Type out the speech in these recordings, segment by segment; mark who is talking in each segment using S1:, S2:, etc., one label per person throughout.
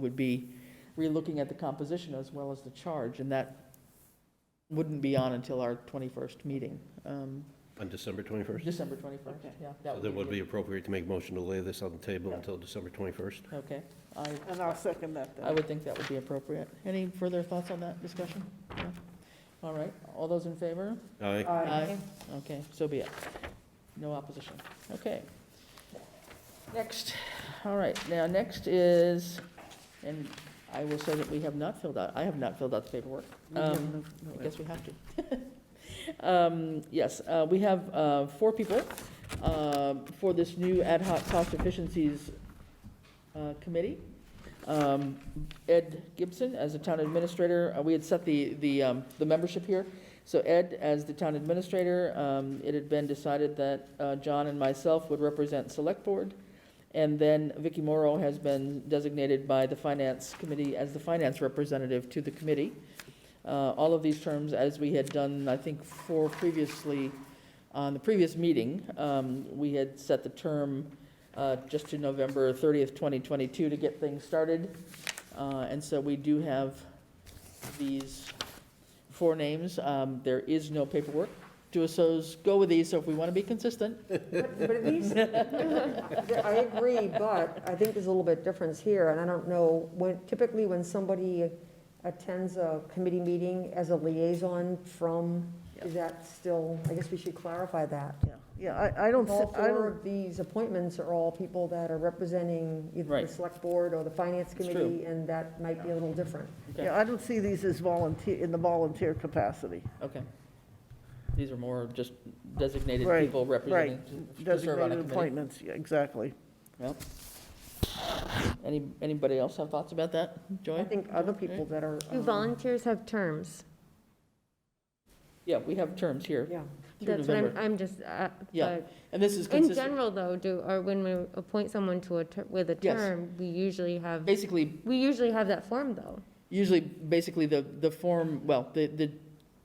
S1: would be relooking at the composition as well as the charge, and that wouldn't be on until our 21st meeting, um,
S2: On December 21st?
S1: December 21st,
S3: Okay.
S1: yeah. that
S2: So then would
S1: good.
S2: be appropriate to make motion to lay this on the table until December 21st?
S1: Okay, I,
S3: And I'll second that then.
S1: I would think that would be appropriate. Any further thoughts on that discussion? No? All right, all those in favor?
S2: Aye.
S3: Aye.
S1: Okay, so be it. No opposition. Okay. Next, all right, now, next is, and I will say that we have not filled out, I have not filled out the paperwork. Um, I guess we have to. Um, Yes, uh, we have uh, four people um, for this new ad hoc cost efficiencies uh, committee. Um, Ed Gibson as the town administrator, Uh, we had set the, the, um, the membership here. So Ed, as the town administrator, um, it had been decided that uh, John and myself would represent Select Board. And then Vicky Morrow has been designated by the Finance Committee as the finance representative to the committee. Uh, All of these terms, as we had done, I think, four previously, on the previous meeting, um, we had set the term uh, just to November 30th, 2022, to get things started. Uh, And so we do have these four names. Um, There is no paperwork. DUSOs go with these, so if we want to be consistent,
S4: But but at least, I agree, but I think there's a little bit difference here, and I don't know, when, typically when somebody attends a committee meeting as a liaison from, is that still, I guess we should clarify that.
S3: Yeah, I, I don't,
S4: All
S3: see- I
S4: four
S3: don't,
S4: of these appointments are all people that are representing either
S1: Right.
S4: the select board or the finance
S1: It's true.
S4: committee, and that might be a little different.
S1: Okay.
S3: yeah, I don't see these as volunteer, in the volunteer capacity.
S1: Okay. These are more just designated
S3: Right,
S1: people representing, to- to
S3: Right,
S1: serve on a
S3: designated
S1: committee.
S3: appointments, yeah, exactly.
S1: Yep. Any, anybody else have thoughts about that?
S4: I
S1: Joy?
S4: think other people that are.
S5: Do
S4: um,
S5: volunteers have terms?
S1: Yeah, we have terms here
S4: Yeah.
S1: through
S5: That's what I'm,
S1: November.
S5: I'm just, uh,
S1: Yeah,
S5: but
S1: And this is
S5: in
S1: consistent,
S5: general though, do, or when we appoint someone to a, ter- with a
S1: Yes.
S5: term, we usually have,
S1: basically,
S5: we usually have that form though.
S1: usually, basically, the, the form, well, the, the,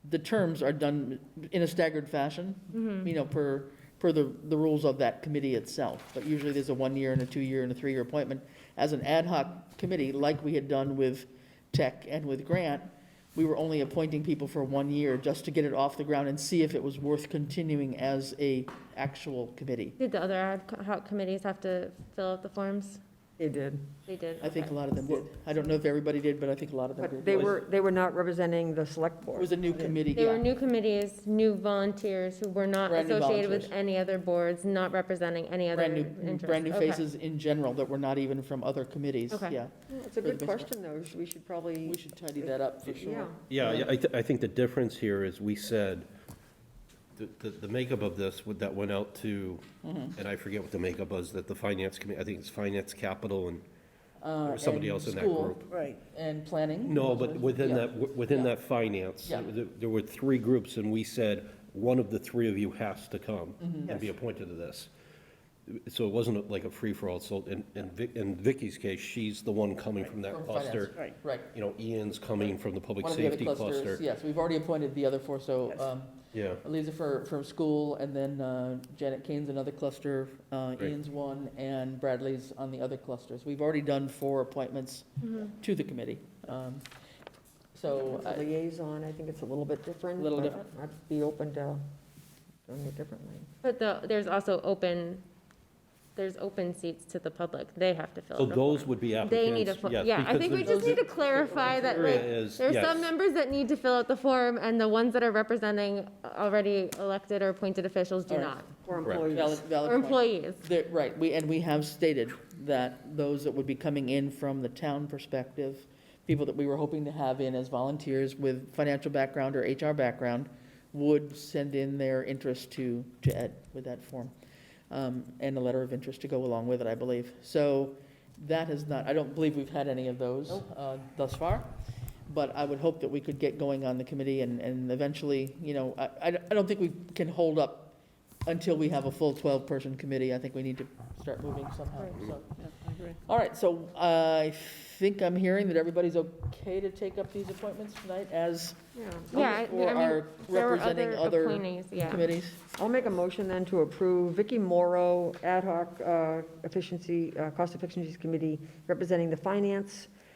S1: the terms are done in a staggered fashion,
S5: Mm-hmm.
S1: you know, per, per the, the rules of that committee itself. But usually, there's a one-year and a two-year and a three-year appointment. As an ad hoc committee, like we had done with tech and with grant, we were only appointing people for one year just to get it off the ground and see if it was worth continuing as a actual committee.
S5: Did the other ad hoc committees have to fill out the forms?
S4: They did.
S5: They did.
S1: I think a
S5: okay.
S1: lot of them did. I don't know if everybody did, but I think a lot of them did.
S4: But they were, they were not representing the select
S1: It
S4: board.
S1: was a new committee,
S5: There were
S1: yeah.
S5: new committees, new volunteers who were not
S1: Brand new
S5: associated with
S1: volunteers.
S5: any other boards, not representing any other
S1: Brand new,
S5: interests.
S1: brand new
S5: Okay.
S1: faces in general that were not even from other committees,
S5: Okay.
S1: yeah.
S4: It's a
S1: For the
S4: good
S1: most part.
S4: question, though. We should probably.
S1: We should tidy that up for
S4: Yeah.
S1: sure.
S2: Yeah, I, I thi- I think the difference here is we said, the, the- the makeup of this, would- that went out to,
S1: Mm-hmm.
S2: and I forget what the makeup was, that the finance committee, I think it's finance capital and there was somebody
S1: Uh, and
S2: else in that
S1: school.
S2: group.
S3: Right.
S1: And planning?
S2: No, but within
S1: Yeah.
S2: that, within that finance,
S1: Yeah.
S2: there there were three groups, and we said, one of the three of you has to come
S1: Mm-hmm.
S4: Mm.
S2: and be
S3: Yes.
S2: appointed to this. So it wasn't like a free-for-all, so in, in Vic- in Vicky's case, she's the one coming from that
S1: From finance,
S2: cluster.
S3: Right.
S1: Right.
S2: You know, Ian's coming from the public
S1: One of the other
S2: safety
S1: clusters,
S2: cluster.
S1: yes, we've already appointed the other four, so
S3: Yes.
S1: um,
S2: Yeah,
S1: Eliza for, from school, and then uh, Janet Kane's another cluster, uh,
S2: Great.
S1: Ian's one, and Bradley's on the other clusters. We've already done four appointments
S5: Mm-hmm.
S1: to the committee. Um, So, uh,
S4: As a
S1: I-
S4: liaison, I think it's a little bit different.
S1: Little
S4: but
S1: different.
S4: I'd be open to doing it differently.
S5: But the, there's also open, there's open seats to the public. They have to fill out
S2: so
S5: the
S2: those
S5: form.
S2: would be
S5: They need a,
S2: applicants,
S5: fo-
S2: yes.
S5: yeah, I
S2: because
S5: think we
S2: there's-
S5: just need to clarify that,
S2: criteria
S5: like,
S2: is-
S5: there are some
S2: yes.
S5: members that need to fill out the form, and the ones that are representing already elected or appointed officials do
S1: All right.
S5: not.
S4: Or
S2: Correct.
S4: employees.
S1: valid, valid
S5: Or
S1: point.
S5: employees.
S1: There- Right, we, and we have stated that those that would be coming in from the town perspective, people that we were hoping to have in as volunteers with financial background or HR background, would send in their interest to, to Ed with that form, um, and a letter of interest to go along with it, I believe. So that has not, I don't believe we've had any of those uh, thus far, but I would hope that we could get going on the committee and, and eventually, you know, I, I I don't think we can hold up until we have a full 12-person committee, I think we need to start moving somehow, so. All right, so uh, I think I'm hearing that everybody's okay to take up these appointments tonight as,
S4: Yeah.
S5: Yeah, I-
S1: or
S5: I mean,
S1: are
S5: there were
S1: representing other
S5: appointees, yeah.
S1: committees?
S4: I'll make a motion then to approve Vicky Morrow, Ad hoc uh, Efficiency, uh, Cost Efficiencies Committee, representing the Finance